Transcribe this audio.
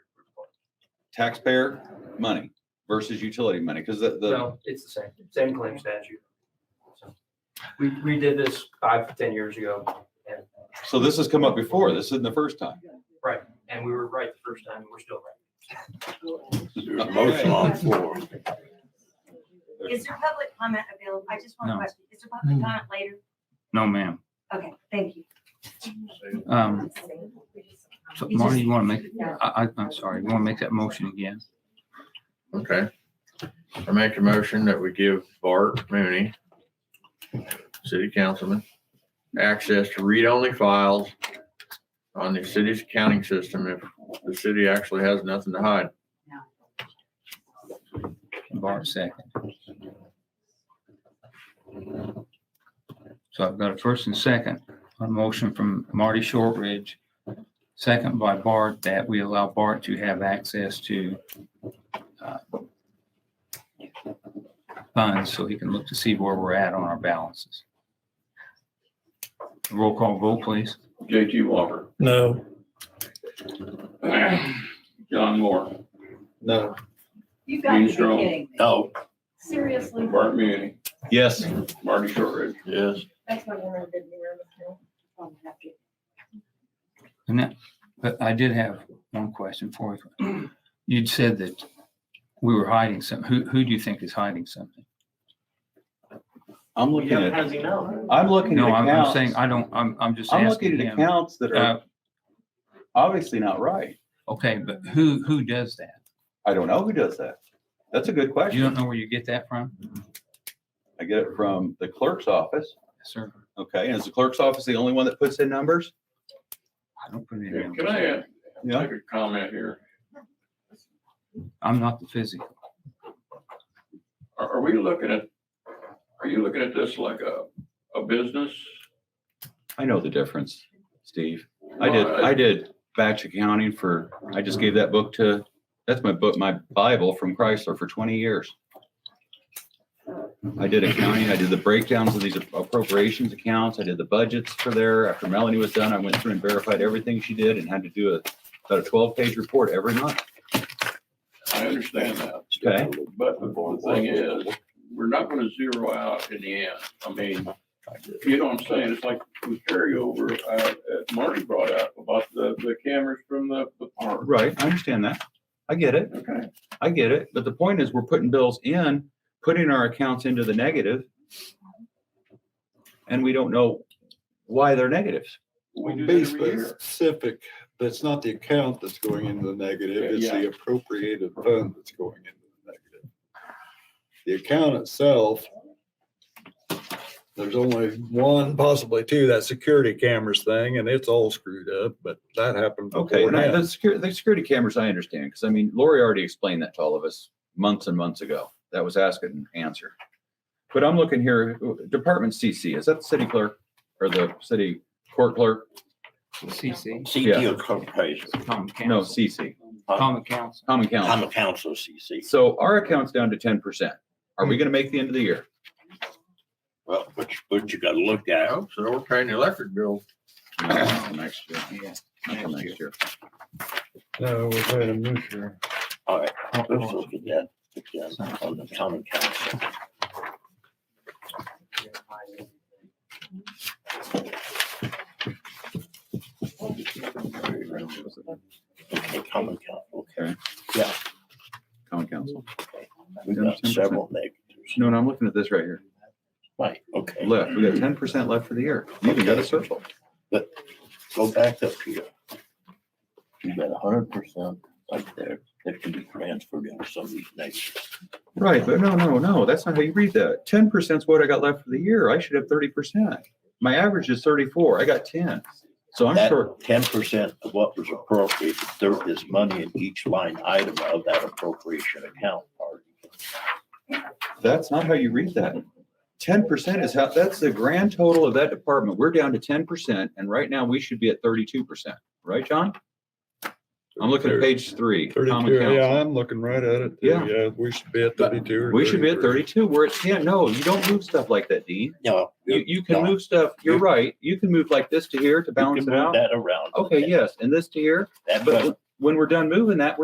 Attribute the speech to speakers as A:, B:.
A: taxpayer money versus utility money, because the, the,
B: No, it's the same, same claim statute. So, We, we did this five to ten years ago and,
A: so this has come up before. This isn't the first time.
B: and we were right the first time, and we're still right.
C: There's a motion on the floor.
D: Is there public comment available? I just want
E: No.
D: a question. Is there public
E: Mm.
D: comment later?
E: No, ma'am.
D: Okay, thank you.
E: Um, so
D: You
E: Marty,
D: just-
E: you want to make, I, I, I'm sorry, you want to make that motion again?
C: Okay. I make a motion that we give Bart Mooney, city councilman, access to read-only files on the city's accounting system if the city actually has nothing to hide.
E: Bart second. So I've got a first and second, a motion from Marty Shortridge, second by Bart, that we allow Bart to have access to uh, funds so he can look to see where we're at on our balances. Roll call vote, please.
F: JT Walker,
G: No,
F: John Moore,
B: No.
H: You've got
F: Dean
H: to be
F: Strong,
H: kidding me.
C: No.
H: Seriously?
F: Bart Mooney,
A: Yes.
F: Marty Shortridge.
C: Yes.
H: That's not gonna get me around the hill.
D: Oh,
H: I'm happy.
E: And that, but I did have one question for you. You'd said that we were hiding some, who, who do you think is hiding something?
A: I'm looking at,
B: he know?
A: I'm looking at
E: No, I'm, I'm saying,
A: accounts.
E: I don't, I'm, I'm just
A: I'm looking
E: asking
A: at
E: him.
A: accounts that
E: Uh,
A: are obviously not right.
E: Okay, but who, who does that?
A: I don't know who does that. That's a good
E: You don't
A: question.
E: know where you get that from?
A: I get it from the clerk's office.
E: Yes, sir.
A: Okay, and is the clerk's office the only one that puts in numbers?
E: I don't put it in.
F: Can I add,
A: Yeah.
F: make a comment here?
E: I'm not the physical.
F: Are, are we looking at, are you looking at this like a, a business?
A: I know the difference, Steve. I did, I did batch accounting for, I just gave that book to, that's my book, my Bible from Chrysler for twenty years. I did accounting, I did the breakdowns of these appropriations accounts, I did the budgets for there. After Melanie was done, I went through and verified everything she did and had to do a, about a twelve-page report every month.
F: I understand that,
A: Okay,
F: but the thing is, we're not gonna zero out in the end. I mean, you know what I'm saying? It's like the carryover, uh, that Marty brought up about the, the cameras from the, the park.
A: right, I understand that. I get it,
F: Okay,
A: I get it. But the point is, we're putting bills in, putting our accounts into the negative, And we don't know why they're negatives.
F: we do that every
I: Basically
F: year.
I: specific, that's not the account that's going into the negative, it's the appropriated fund that's going into the negative. The account itself, there's only one, possibly two, that security cameras thing, and it's all screwed up, but that happened
A: Okay,
I: before
A: and I-
I: now.
A: the security, the security cameras, I understand, because I mean, Lori already explained that to all of us months and months ago. That was ask and answer. But I'm looking here, Department CC, is that the city clerk or the city court clerk?
E: CC,
A: Yeah.
J: CT Corporation,
E: common
A: No,
E: council,
A: CC,
E: common council.
A: common
J: I'm
A: council.
J: a council CC.
A: So our account's down to ten percent. Are we gonna make the end of the year?
J: Well, but, you- but you gotta look
C: I
J: at,
C: hope so. We're paying the electric bill.
A: No, not till Next year.
E: Yeah.
A: Not till
E: next
A: next year.
I: No, we're paying them this year.
J: all right, let's
E: Oh,
J: look at that, look at that on the common council. Okay, common council, okay.
A: Common council.
J: We've got several negatives.
A: No, no, I'm looking at this right here.
J: Right, okay,
A: Left, we got ten percent left for the year. You even got a circle.
J: go back up here. You've got a hundred percent right there that can be transferred into some of these negatives.
A: Right, but no, no, no, that's not how you read that. Ten percent's what I got left for the year. I should have thirty percent. My average is thirty-four. I got ten. So I'm short.
J: That ten percent of what was appropriated, there is money in each line item of that appropriation account. Marty.
A: That's not how you read that. Ten percent is how, that's the grand total of that department. We're down to ten percent and right now we should be at thirty-two percent, right, John? I'm looking at page three. common
I: Thirty-two, yeah,
A: council.
I: I'm looking right at it. too.
A: Yeah.
I: Yeah, we should be at thirty-two. or
A: We should be at
I: 33.
A: thirty-two. We're at ten. No, you don't move stuff like that, Dean.
J: No.
A: You, you can
J: no,
A: move stuff, you're right. You can move like this to here to
J: you can
A: balance it
J: move
A: out.
J: That around.
A: Okay, yes, and this to here.
J: That
A: But when we're done moving that, we're